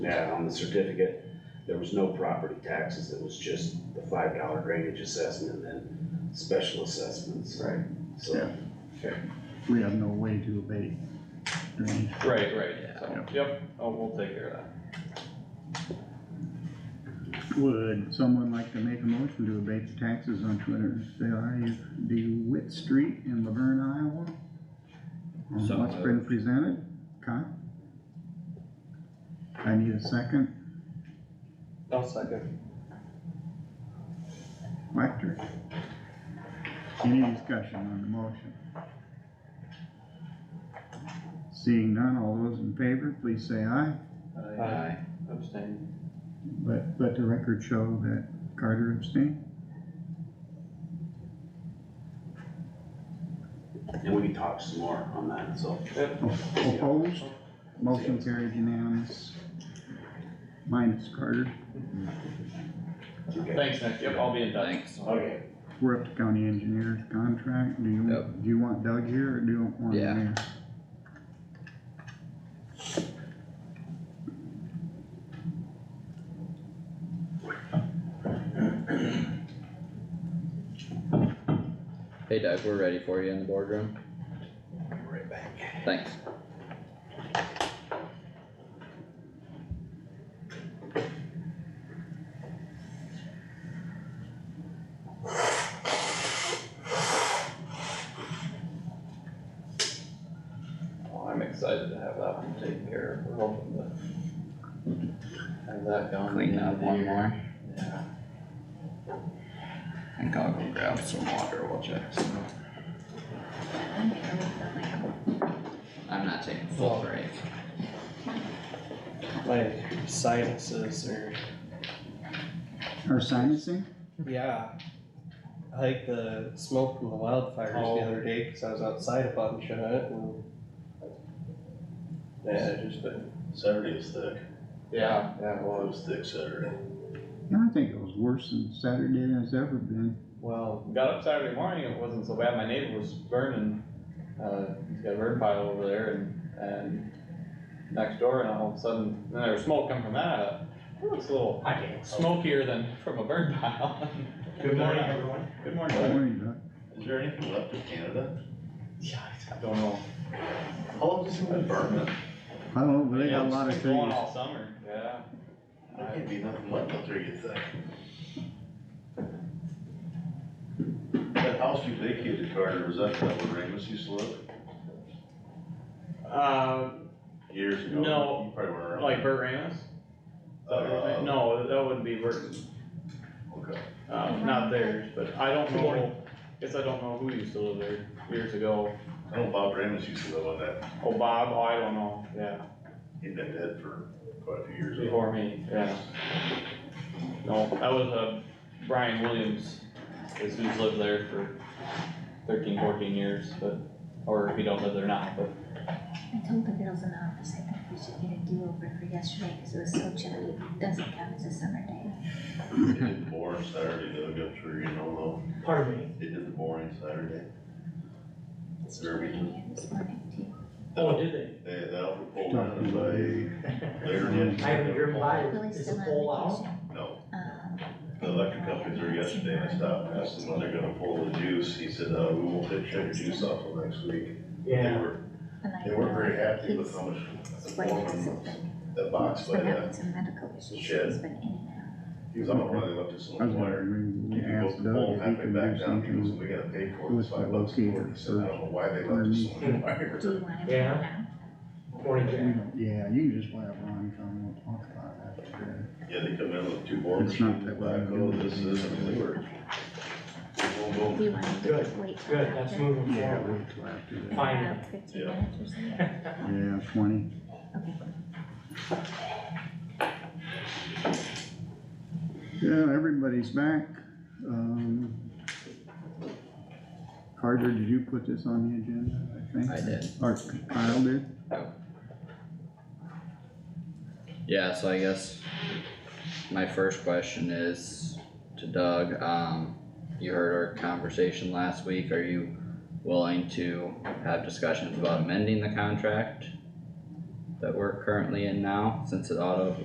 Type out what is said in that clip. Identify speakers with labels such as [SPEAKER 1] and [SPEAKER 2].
[SPEAKER 1] had on the certificate, there was no property taxes, it was just the five dollar drainage assessment and then special assessments,
[SPEAKER 2] Right.
[SPEAKER 1] so.
[SPEAKER 3] we have no way to abate drainage.
[SPEAKER 4] Right, right, so, yep, oh, we'll take care of that.
[SPEAKER 3] Would someone like to make a motion to abate the taxes on two hundred and fifty Witt Street in Laverne, Iowa?
[SPEAKER 5] So
[SPEAKER 3] On what's been presented, Kyle? I need a second,
[SPEAKER 4] I'll second.
[SPEAKER 3] Whacter. Any discussion on the motion? Seeing none, all those in favor, please say aye,
[SPEAKER 4] Aye. Abstain.
[SPEAKER 3] but let the record show that Carter abstained.
[SPEAKER 1] And we can talk some more on that, so.
[SPEAKER 3] Opposed? Motion carried unanimous. Minus Carter.
[SPEAKER 1] okay.
[SPEAKER 4] Thanks, Nick, yep, I'll be in touch.
[SPEAKER 5] Thanks.
[SPEAKER 1] Okay.
[SPEAKER 3] We're up to county engineer's contract. Do you,
[SPEAKER 5] Yep.
[SPEAKER 3] do you want Doug here or do you want
[SPEAKER 5] Yeah.
[SPEAKER 3] him
[SPEAKER 5] Hey Doug, we're ready for you in the boardroom.
[SPEAKER 1] I'm Right back.
[SPEAKER 5] Thanks.
[SPEAKER 4] Well, I'm excited to have that one taken care of, we're hoping to have that gone.
[SPEAKER 5] Clean up one more.
[SPEAKER 4] Yeah.
[SPEAKER 5] I think I'll go grab some water, we'll check some. I'm not taking a full break.
[SPEAKER 6] my sinuses or
[SPEAKER 3] here? Or sinusing?
[SPEAKER 6] yeah. I like the smoke from the wildfires
[SPEAKER 4] Oh.
[SPEAKER 6] the other day because I was outside a bunch of it and
[SPEAKER 4] Yeah, it just been,
[SPEAKER 7] Saturday was thick,
[SPEAKER 4] yeah, yeah, it
[SPEAKER 7] it
[SPEAKER 4] was.
[SPEAKER 7] was thick Saturday.
[SPEAKER 3] Yeah, I think it was worse than Saturday than it's ever been.
[SPEAKER 4] Well, got up Saturday morning, it wasn't so bad, my neighbor was burning, uh, he's got a burn pile over there and, and next door, and all of a sudden, then there was smoke coming from that, it looks a little smokier than from a burn pile.
[SPEAKER 7] Good morning, everyone.
[SPEAKER 4] Good morning,
[SPEAKER 3] Don't
[SPEAKER 4] Doug.
[SPEAKER 3] worry about it.
[SPEAKER 7] Is there anything left of Canada?
[SPEAKER 4] Yeah, I don't know.
[SPEAKER 7] How long does it been burning?
[SPEAKER 3] I don't know, but they got a
[SPEAKER 4] It's
[SPEAKER 3] lot of
[SPEAKER 4] been Going
[SPEAKER 3] things.
[SPEAKER 4] all summer, yeah.
[SPEAKER 7] There can't be nothing left up there, you think? That house you vacated, Carter, was that that where Ramus used to live
[SPEAKER 4] Uh,
[SPEAKER 7] years ago?
[SPEAKER 4] No,
[SPEAKER 7] You probably weren't around.
[SPEAKER 4] like Bert Ramus?
[SPEAKER 7] Uh,
[SPEAKER 4] No, that wouldn't be Bert,
[SPEAKER 7] Okay.
[SPEAKER 4] um, not theirs, but I don't know, guess I don't know who used to live there years ago.
[SPEAKER 7] I know Bob Ramus used to live on that,
[SPEAKER 4] Oh, Bob, oh, I don't know, yeah.
[SPEAKER 7] he'd been dead for quite a few years. ago.
[SPEAKER 4] Before me, yeah. No, that was, uh, Brian Williams, is who's lived there for 13, 14 years, but, or he don't live there now, but.
[SPEAKER 8] I told the girls in the office, I think we should get a do-over for yesterday, cause it was so chilly, It doesn't count as a summer day.
[SPEAKER 7] They did the boring Saturday, Doug, I'm sure you know
[SPEAKER 6] pardon me.
[SPEAKER 7] though, they did the boring Saturday.
[SPEAKER 8] It's chilly in here this morning too.
[SPEAKER 6] Oh, did they?
[SPEAKER 7] They, that'll pull down and by later in. the
[SPEAKER 3] I
[SPEAKER 6] haven't driven by.
[SPEAKER 8] Lily's
[SPEAKER 6] Is
[SPEAKER 8] still
[SPEAKER 6] it full
[SPEAKER 8] on
[SPEAKER 6] out?
[SPEAKER 8] vacation.
[SPEAKER 7] No,
[SPEAKER 8] Um,
[SPEAKER 7] The electric companies were yesterday, and I stopped, and asked them when they're gonna pull the juice, he said, uh, we won't take your juice off till next week. They were,
[SPEAKER 8] and I
[SPEAKER 7] they weren't
[SPEAKER 8] know
[SPEAKER 7] very happy with uh,
[SPEAKER 8] he's-
[SPEAKER 7] how much the
[SPEAKER 8] It's way
[SPEAKER 7] foreman
[SPEAKER 8] it's
[SPEAKER 7] was,
[SPEAKER 8] been,
[SPEAKER 7] that box by
[SPEAKER 8] been having
[SPEAKER 7] that,
[SPEAKER 8] some medical issues,
[SPEAKER 7] shed.
[SPEAKER 8] he's been in and
[SPEAKER 7] he was on the run, they left us
[SPEAKER 3] I
[SPEAKER 7] on
[SPEAKER 3] was
[SPEAKER 7] the wire.
[SPEAKER 3] wondering,
[SPEAKER 7] He
[SPEAKER 3] we
[SPEAKER 7] goes
[SPEAKER 3] asked Doug
[SPEAKER 7] home
[SPEAKER 3] if he
[SPEAKER 7] halfway
[SPEAKER 3] can
[SPEAKER 7] back
[SPEAKER 3] do
[SPEAKER 7] down, he goes,
[SPEAKER 3] something.
[SPEAKER 7] we gotta pay for it,
[SPEAKER 3] with
[SPEAKER 7] it's five
[SPEAKER 3] the
[SPEAKER 7] bucks for it,
[SPEAKER 3] locator,
[SPEAKER 7] he said, I don't know why they left us on the wire.
[SPEAKER 8] out. Do you want him
[SPEAKER 6] Yeah.
[SPEAKER 8] to go now?
[SPEAKER 3] We don't- Yeah, you can just let Ron come, we'll talk about it after.
[SPEAKER 7] Yeah, they come in with two board
[SPEAKER 3] It's not
[SPEAKER 7] machines,
[SPEAKER 3] that bad.
[SPEAKER 7] backhoe, this is, and they were. they were
[SPEAKER 8] Do you
[SPEAKER 7] going-
[SPEAKER 8] want him to just wait till
[SPEAKER 6] Good, that's
[SPEAKER 8] after?
[SPEAKER 6] moving
[SPEAKER 3] Yeah,
[SPEAKER 6] forward.
[SPEAKER 3] wait till after that.
[SPEAKER 6] Fine.
[SPEAKER 8] About Fifteen
[SPEAKER 7] Yeah.
[SPEAKER 8] minutes or something,
[SPEAKER 3] Yeah, twenty.
[SPEAKER 8] okay.
[SPEAKER 3] Yeah, everybody's back. Um, Carter, did you put this on the agenda, I think?
[SPEAKER 5] I did.
[SPEAKER 3] Or Kyle did?
[SPEAKER 5] Yeah, so I guess my first question is to Doug, um, you heard our conversation last week, are you willing to have discussions about amending the contract that we're currently in now, since it auto